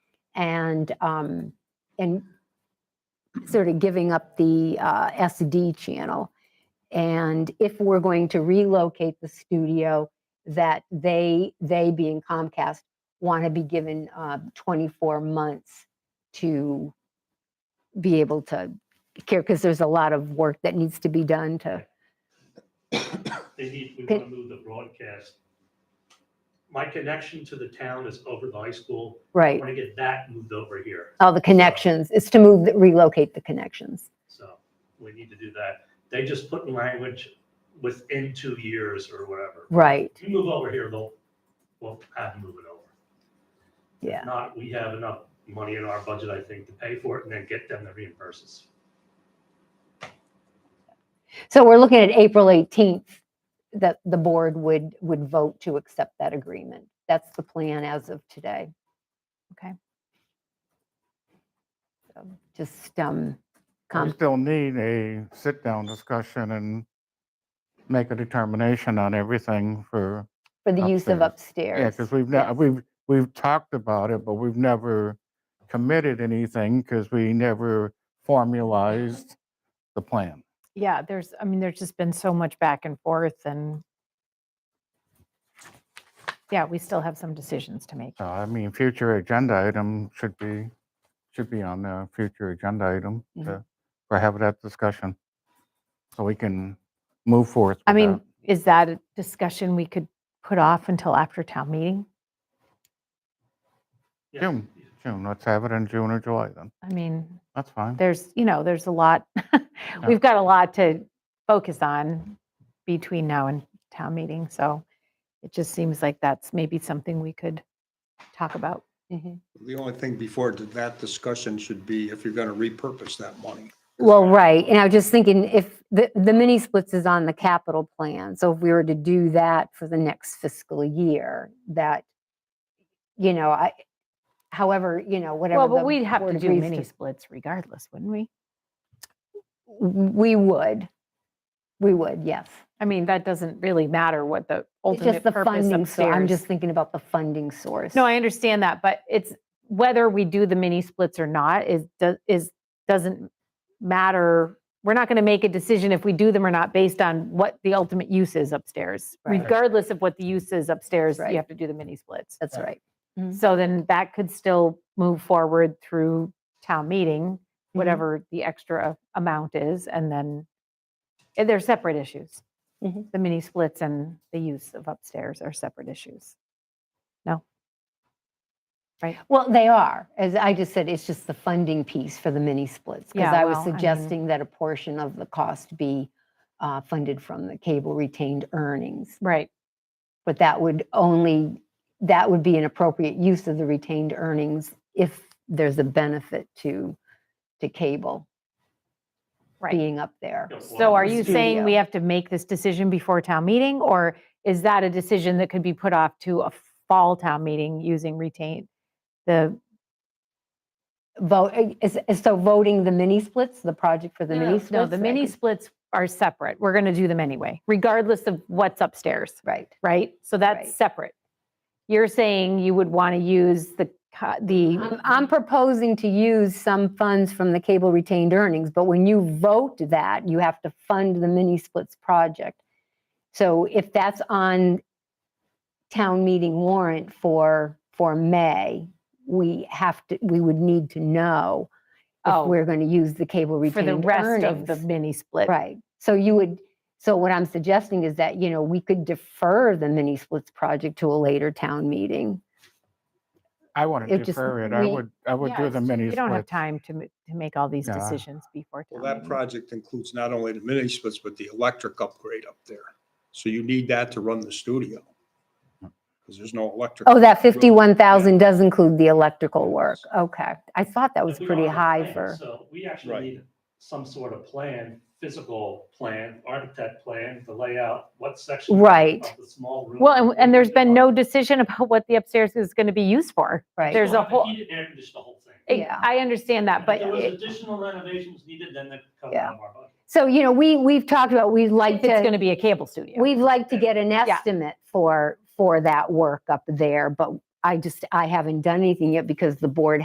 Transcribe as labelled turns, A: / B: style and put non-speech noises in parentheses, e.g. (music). A: and, um, and sort of giving up the uh, SD channel. And if we're going to relocate the studio, that they, they being Comcast, want to be given uh, 24 months to be able to care, because there's a lot of work that needs to be done to,
B: They need, we
A: Pit-
B: want to move the broadcast. My connection to the town is over the high school. I
A: right?
B: want to get that moved over here.
A: All the connections, it's to move, the- relocate the connections.
B: So we need to do that. They just put in language within two years or whatever.
A: Right,
B: If you move over here, they'll, we'll have to move it over.
A: yeah.
B: If Not, we have enough money in our budget, I think, to pay for it and then get them to reimburse us.
A: So we're looking at April 18th, that the board would, would vote to accept that agreement. That's the plan as of today. Okay. So Just, um,
C: We
A: com-
C: still need a sit-down discussion and make a determination on everything for,
A: for the use of
C: yeah,
A: upstairs.
C: because we've, ne-
A: yes.
C: we've, we've talked about it, but we've never committed anything because we never formalized the plan.
D: Yeah, there's, I mean, there's just been so much back and forth and yeah, we still have some decisions to make.
C: So I mean, future agenda item should be, should be on the future agenda item
A: Mhm.
C: to, for have that discussion. So we can move forth.
D: I
C: with that.
D: mean, is that a discussion we could put off until after town meeting?
B: Yeah.
C: June, June, let's have it in June or July then.
D: I mean,
C: That's fine.
D: there's, you know, there's a lot, (laughs) we've got a lot to focus on between now and town meeting, so it just seems like that's maybe something we could talk about.
A: Mhm.
E: The only thing before th- that discussion should be if you're going to repurpose that money.
A: Well, right, and I was just thinking if, the, the mini splits is on the capital plan. So if we were to do that for the next fiscal year, that, you know, I, however, you know, whatever.
D: Well, but
A: the
D: we'd have
A: board
D: to do
A: agrees
D: mini splits regardless, wouldn't we?
A: We would. We would, yes.
D: I mean, that doesn't really matter what the
A: It's just
D: ultimate
A: the
D: purpose
A: funding, so I'm
D: upstairs.
A: just thinking about the funding source.
D: No, I understand that, but it's whether we do the mini splits or not is, do- is, doesn't matter. We're not going to make a decision if we do them or not based on what the ultimate use is upstairs.
A: Right.
D: Regardless of what the use is upstairs,
A: Right.
D: you have to do the mini splits.
A: That's right. Mhm.
D: So then that could still move forward through town meeting, whatever the extra amount is, and then and they're separate issues.
A: Mhm.
D: The mini splits and the use of upstairs are separate issues.
A: Well, they are. As I just said, it's just the funding piece for the mini splits. Because
D: Yeah,
A: I was
D: well, I mean-
A: suggesting that a portion of the cost be uh, funded from the cable retained earnings.
D: Right.
A: But that would only, that would be an appropriate use of the retained earnings if there's a benefit to, to cable
D: Right.
A: being up there.
B: You know,
D: So are
B: well,
D: you saying we
A: Studio.
D: have to make this decision before town meeting, or is that a decision that could be put off to a fall town meeting using retain? The,
A: Vote, uh, is- is- so voting the mini splits, the project for the mini splits?
D: no, the
A: I
D: mini
A: could-
D: splits are separate. We're going to do them anyway, regardless of what's upstairs.
A: Right.
D: right? So
A: Right.
D: that's separate. You're saying you would want to use the, co- the,
A: I'm, I'm proposing to use some funds from the cable retained earnings, but when you vote that, you have to fund the mini splits project. So if that's on town meeting warrant for, for May, we have to, we would need to know if
D: Oh.
A: we're going to use the cable
D: for the
A: retained
D: rest of the
A: earnings.
D: mini split.
A: Right. So you would, so what I'm suggesting is that, you know, we could defer the mini splits project to a later town meeting.
C: I want
A: it
C: to
A: just-
C: defer it. I
A: we-
C: would, I would
D: Yeah,
C: do
D: it's
C: the
D: just-
C: mini
D: We don't have
C: split.
D: time to, ma- to make all these
C: Yeah.
D: decisions before.
E: Well,
D: town
E: that
D: meeting.
E: project includes not only the mini splits, but the electric upgrade up there. So you need that to run the studio. Because there's no electric.
A: Oh, that
E: up there.
A: fifty-one thousand does include the electrical work, okay. I thought that was
B: But we
A: pretty
B: don't have a
A: high
B: plan,
A: for,
B: So we actually
E: Right.
B: need some sort of plan, physical plan, architect plan, the layout, what section. of-
A: Right.
B: Of the small room.
D: Well, and, and there's been no
B: We
D: decision about what the upstairs is going to be used for.
A: right?
D: there's
B: don't
D: a
B: have to
D: whole-
B: heat it and air condition the whole thing.
D: I-
A: Yeah.
D: I understand that, but
B: If there was
D: it-
B: additional renovations needed, then that comes
A: Yeah.
B: out of our budget.
A: So, you know, we, we've talked about, we'd like
D: if it's going
A: to,
D: to be a cable studio.
A: we'd like to get an estimate for, for that work up there, but I just, I haven't done anything yet because the board